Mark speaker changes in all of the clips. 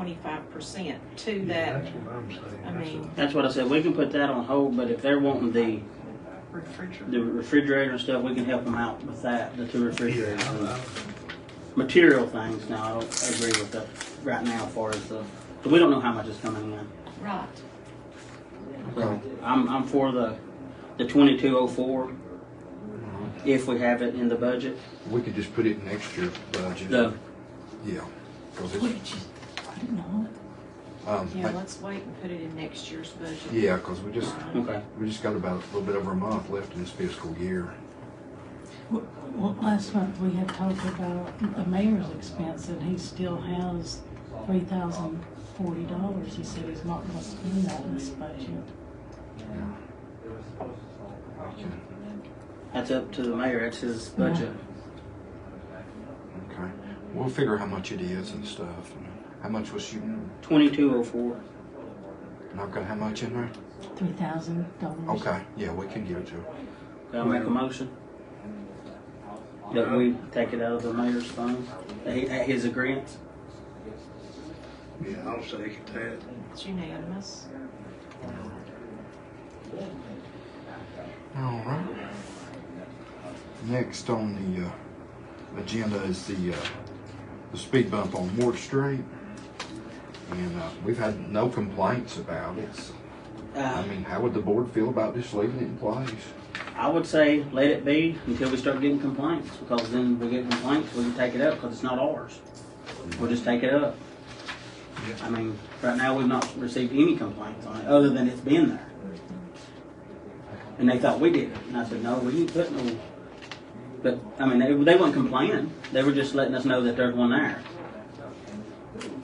Speaker 1: twenty-five percent to
Speaker 2: Yeah,
Speaker 1: that
Speaker 2: That's what I'm saying.
Speaker 1: I
Speaker 2: That's
Speaker 1: mean-
Speaker 2: a-
Speaker 3: That's what I said. We can put that on hold, but if they're wanting the, the
Speaker 1: refrigerator.
Speaker 3: refrigerator and stuff, we can help them out with that, the two refrigerators.
Speaker 2: Yeah,
Speaker 3: and
Speaker 2: I-
Speaker 3: Material things, now, I don't agree with that right now as far as the, but we don't know how much is coming in.
Speaker 1: Right.
Speaker 3: So I'm, I'm for the, the twenty-two oh four,
Speaker 2: Mm-hmm.
Speaker 3: if we have it in the budget.
Speaker 4: We could just put it in next year budget.
Speaker 3: The,
Speaker 4: Yeah, 'cause
Speaker 1: We
Speaker 4: it's,
Speaker 1: could just, I don't know.
Speaker 4: um,
Speaker 1: Yeah,
Speaker 4: like-
Speaker 1: let's wait and put it in next year's budget.
Speaker 4: yeah, 'cause we just,
Speaker 3: okay,
Speaker 4: we just got about a little bit over a month left in this fiscal year.
Speaker 5: Well, well, last month we had talked about the mayor's expense and he still has three thousand forty dollars. He said he's not gonna spend that in this budget.
Speaker 4: Okay,
Speaker 3: that's up to the mayor, that's his
Speaker 2: Mm-hmm.
Speaker 3: budget.
Speaker 4: okay. We'll figure how much it is and stuff. and How much was shooting?
Speaker 3: Twenty-two oh four,
Speaker 4: And I've got how much in there?
Speaker 5: Three thousand dollars.
Speaker 4: Okay, yeah, we can give it to her.
Speaker 3: can I make a motion? That we take it out of the mayor's funds, at at his agreement?
Speaker 2: Yeah, I'll second that.
Speaker 1: It's unanimous.
Speaker 4: All right. Next on the uh, agenda is the uh, the speed bump on Ward Street, and uh, we've had no complaints about it. So,
Speaker 3: Uh,
Speaker 4: I mean, how would the board feel about just leaving it in place?
Speaker 3: I would say let it be until we start getting complaints, because then we get complaints, we can take it up, because it's not ours. We'll just take it up. I mean, right now, we've not received any complaints on it, other than it's been there. And they thought we did it, and I said, no, we didn't put no, but, I mean, they, they weren't complaining, they were just letting us know that there's one there.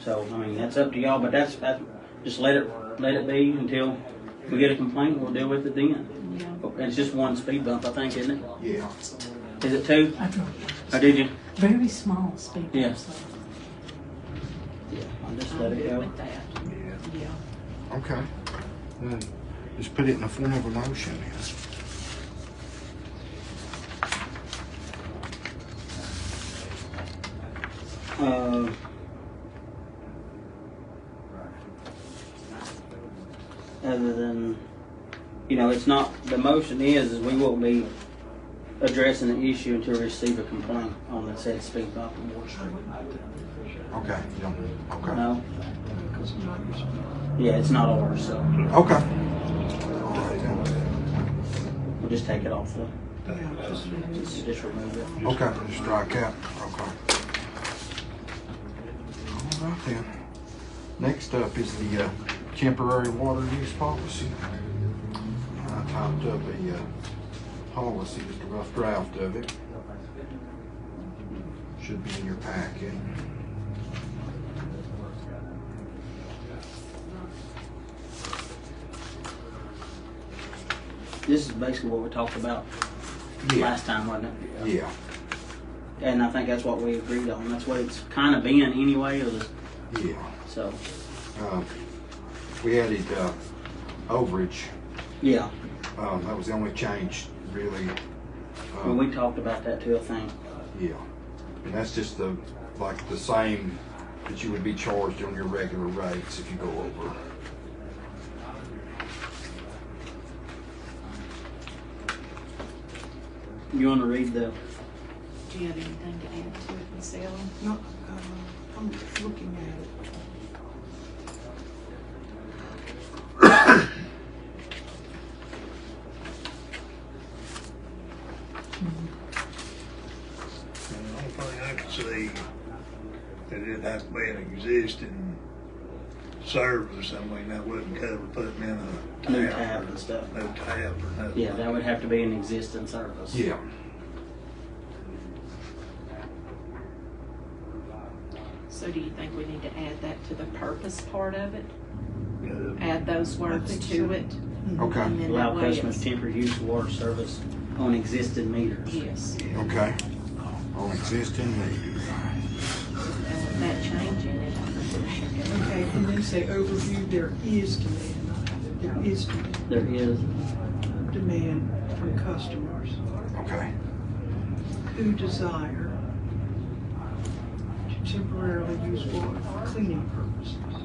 Speaker 3: So, I mean, that's up to y'all, but that's, that's, just let it, let it be until we get a complaint, we'll deal with it then.
Speaker 1: Yeah.
Speaker 3: It's just one speed bump, I think, isn't it?
Speaker 4: Yeah.
Speaker 3: Is it two?
Speaker 5: I drove
Speaker 3: Or did you?
Speaker 5: very small speed
Speaker 3: Yeah.
Speaker 5: bumps. though.
Speaker 3: Yeah. I'll just
Speaker 1: I'm
Speaker 3: let it
Speaker 1: good
Speaker 3: go.
Speaker 1: with that.
Speaker 4: Yeah.
Speaker 1: Yeah.
Speaker 4: Okay. Well, just put it in the form of a motion. Then.
Speaker 3: Uh, Other than, you know, it's not, the motion is, is we will be addressing the issue until we receive a complaint on the said speed bump on Ward Street.
Speaker 4: Okay. you don't- Okay.
Speaker 3: No? Yeah, it's not ours, so
Speaker 4: Okay. All right. then.
Speaker 3: we'll just take it off the,
Speaker 1: Just-
Speaker 3: just remove it.
Speaker 4: Okay. Just strike out. Okay. All right then. Next up is the uh, temporary water use policy. I typed up a uh, policy, just a rough draft of it. Should be in your packet.
Speaker 3: This is basically what we talked about
Speaker 4: Yeah.
Speaker 3: last time, wasn't it?
Speaker 4: Yeah.
Speaker 3: And I think that's what we agreed on. That's what it's kind of been anyway. It was,
Speaker 4: Yeah.
Speaker 3: so,
Speaker 4: Uh, We added uh, overage.
Speaker 3: yeah.
Speaker 4: Um, That was the only change, really.
Speaker 3: Well,
Speaker 4: Um,
Speaker 3: we talked about that too, I think.
Speaker 4: Yeah. And that's just the, like, the same that you would be charged on your regular rates if you go over.
Speaker 3: You want to read the,
Speaker 1: Do you have anything to add to it, Miss Ellen?
Speaker 6: No, uh, I'm just looking at it.
Speaker 2: The only thing I can see that it'd have to be an existing service. I mean, that wouldn't cover putting in a
Speaker 3: New
Speaker 2: tap.
Speaker 3: tap and stuff.
Speaker 2: No tap or nothing.
Speaker 3: yeah, that would have to be an existing service.
Speaker 4: Yeah.
Speaker 1: So do you think we need to add that to the purpose part of it?
Speaker 2: Yeah.
Speaker 1: Add those words to it? And
Speaker 4: Okay.
Speaker 1: then that
Speaker 3: Allow
Speaker 1: way
Speaker 3: customers
Speaker 1: it's,
Speaker 3: temporary use of water service on existing meters.
Speaker 1: yes.
Speaker 4: Okay. On existing meters.
Speaker 1: And with that change in it, I think we should
Speaker 6: Okay, and then say overview, there is demand, there is
Speaker 3: There is,
Speaker 6: demand from customers
Speaker 4: Okay.
Speaker 6: who desire temporarily used for cleaning purposes.